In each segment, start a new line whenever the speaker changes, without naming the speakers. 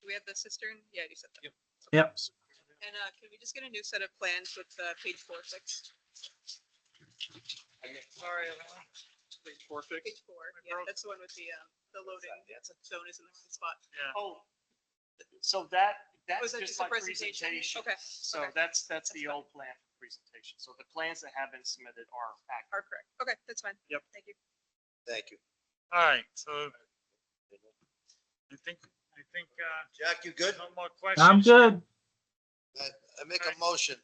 Do we have the cistern? Yeah, you said that.
Yep.
Yep.
And uh, can we just get a new set of plans with uh, page four, six,
Sorry. Alan. Page four fix.
page four? Yeah,
broke.
that's the one with the, um, the loading zone is in the right spot.
Oh, so that,
Was
that's
that
just
just a
my
presentation?
presentation.
Okay,
So
okay.
that's, that's
That's
the
fine.
old plan for presentation. So the plans that have been submitted are accurate.
are correct. Okay, that's fine.
Yep.
Thank you.
Thank you.
All right, so I think, I think, uh,
Jack, you good?
no more questions.
I'm good.
I I make a motion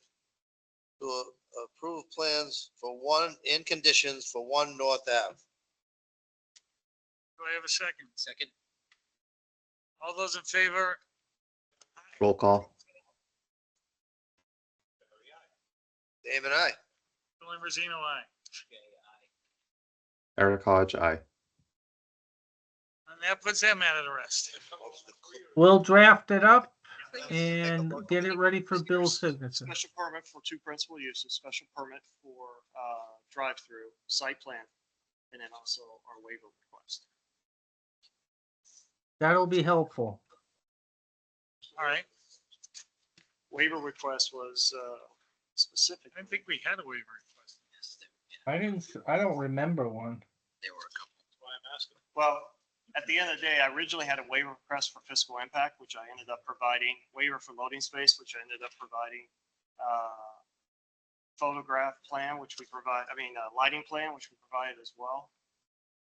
to approve plans for one, in conditions for one North Ave.
Do I have a second? Second. All those in favor?
Roll call.
Dave and I.
Julian Rosino, aye.
Eric Hodge, aye.
And that puts that matter to rest.
We'll draft it up
Please.
and get it ready for Bill's signature.
Special permit for two principal uses, special permit for, uh, drive-through, site plan, and then also our waiver request.
That'll be helpful.
All right,
Waiver request was, uh, specific.
I didn't think we had a waiver request.
I didn't, I don't remember one.
Well, at the end of the day, I originally had a waiver request for fiscal impact, which I ended up providing, waiver for loading space, which I ended up providing, uh, photograph plan, which we provide, I mean, uh, lighting plan, which we provided as well.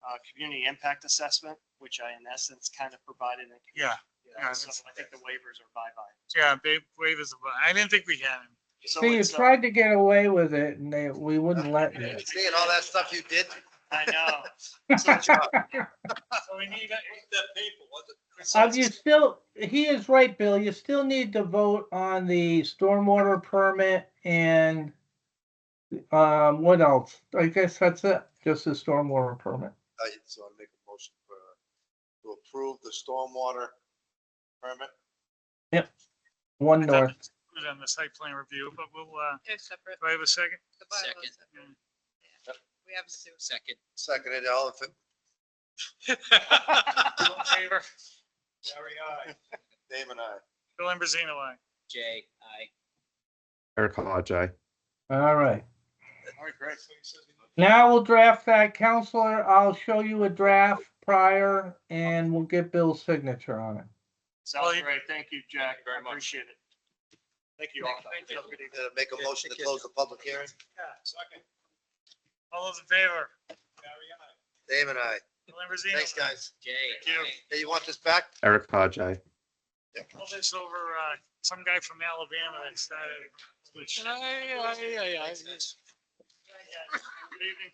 Uh, community impact assessment, which I in essence kind of provided. in-
Yeah, yeah,
So
that's-
I think the waivers are bye-bye.
yeah, ba- waivers, of- I didn't think we had him.
So
See, you
it's, uh,
tried to get away with it and they, we wouldn't let you.
Seeing all that stuff you did.
I know. So it's-
So we need, a-
Um, you still, he is right, Bill. You still need to vote on the stormwater permit and um, what else? I guess that's it, just the stormwater permit.
I- So I make a motion for, uh, to approve the stormwater permit.
One
I
north.
thought it was on the site plan review, but we'll, uh,
It's separate.
do I have a second?
The bylaws
Second.
separate.
Yep.
We have to do.
Second.
Seconded, all in favor?
All in favor?
Dave and I.
Bill Ambrosino, aye.
Jay, I.
Eric Hodge, aye.
All right.
All right, great.
Now we'll draft that, counselor. I'll show you a draft prior and we'll get Bill's signature on it.
Sounds great. Thank you, Jack.
very much.
Appreciate it. Thank you all.
Uh, Make a motion to close the public hearing.
All those in favor?
Dave and I.
Bill Ambrosino.
Thanks,
aye.
guys.
Jay,
Thank you.
aye.
Hey, you want this back?
Eric Hodge, aye.
All this over, uh, some guy from Alabama that started. which-
Thanks, guys.
Good evening.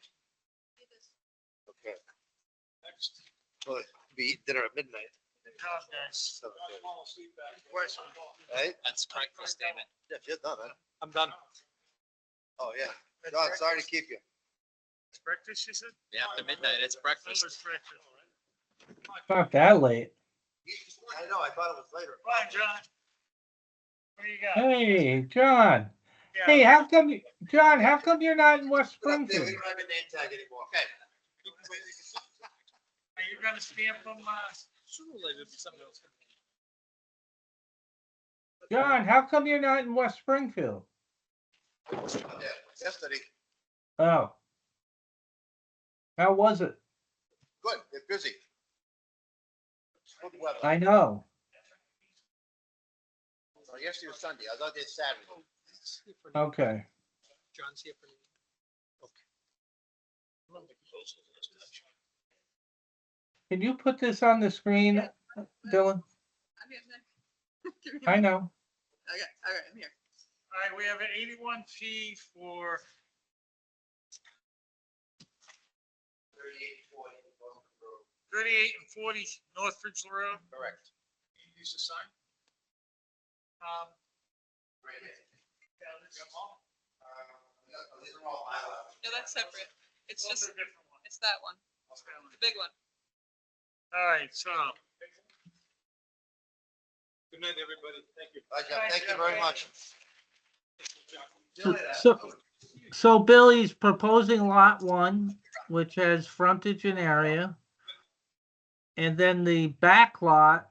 Okay. Well, be dinner at midnight.
Good job, guys.
so,
Question.
Right?
That's breakfast, damn it.
Yeah, if you're done, huh?
I'm done.
Oh, yeah. John, sorry to keep you.
Breakfast, you said?
Yeah, after midnight, it's breakfast.
That was breakfast.
It's Not that late.
I know, I thought it was later.
Fine, John. What do you got?
Hey, John.
Yeah.
Hey, how come, you- John, how come you're not in West
We don't have
Springfield?
a name tag anymore. Okay.
Are you gonna stamp them, uh?
John, how come you're not in West Springfield?
Yeah, Yesterday,
Oh. How was it?
good, they're busy. Good weather.
I know.
Oh, Yesterday was Sunday, I was out there Saturday.
Okay.
John's here for.
Can you put this on the screen, Dylan?
I'm here, I'm here. Give me a
I
minute.
know.
Okay, all right, I'm here.
All right, we have an eighty-one P for
Thirty-eight forty, Wilton Road.
thirty-eight and forty North Ridge Road.
Correct. Use the sign?
Um,
Right there. Uh, no, These are all my.
No, that's separate. It's
those
just,
are different ones.
it's that one, the big one.
All right, so.
Good night, everybody, thank you. thank you very
Good night,
much.
So, so Billy's proposing lot one, which has frontage and area. And then the back lot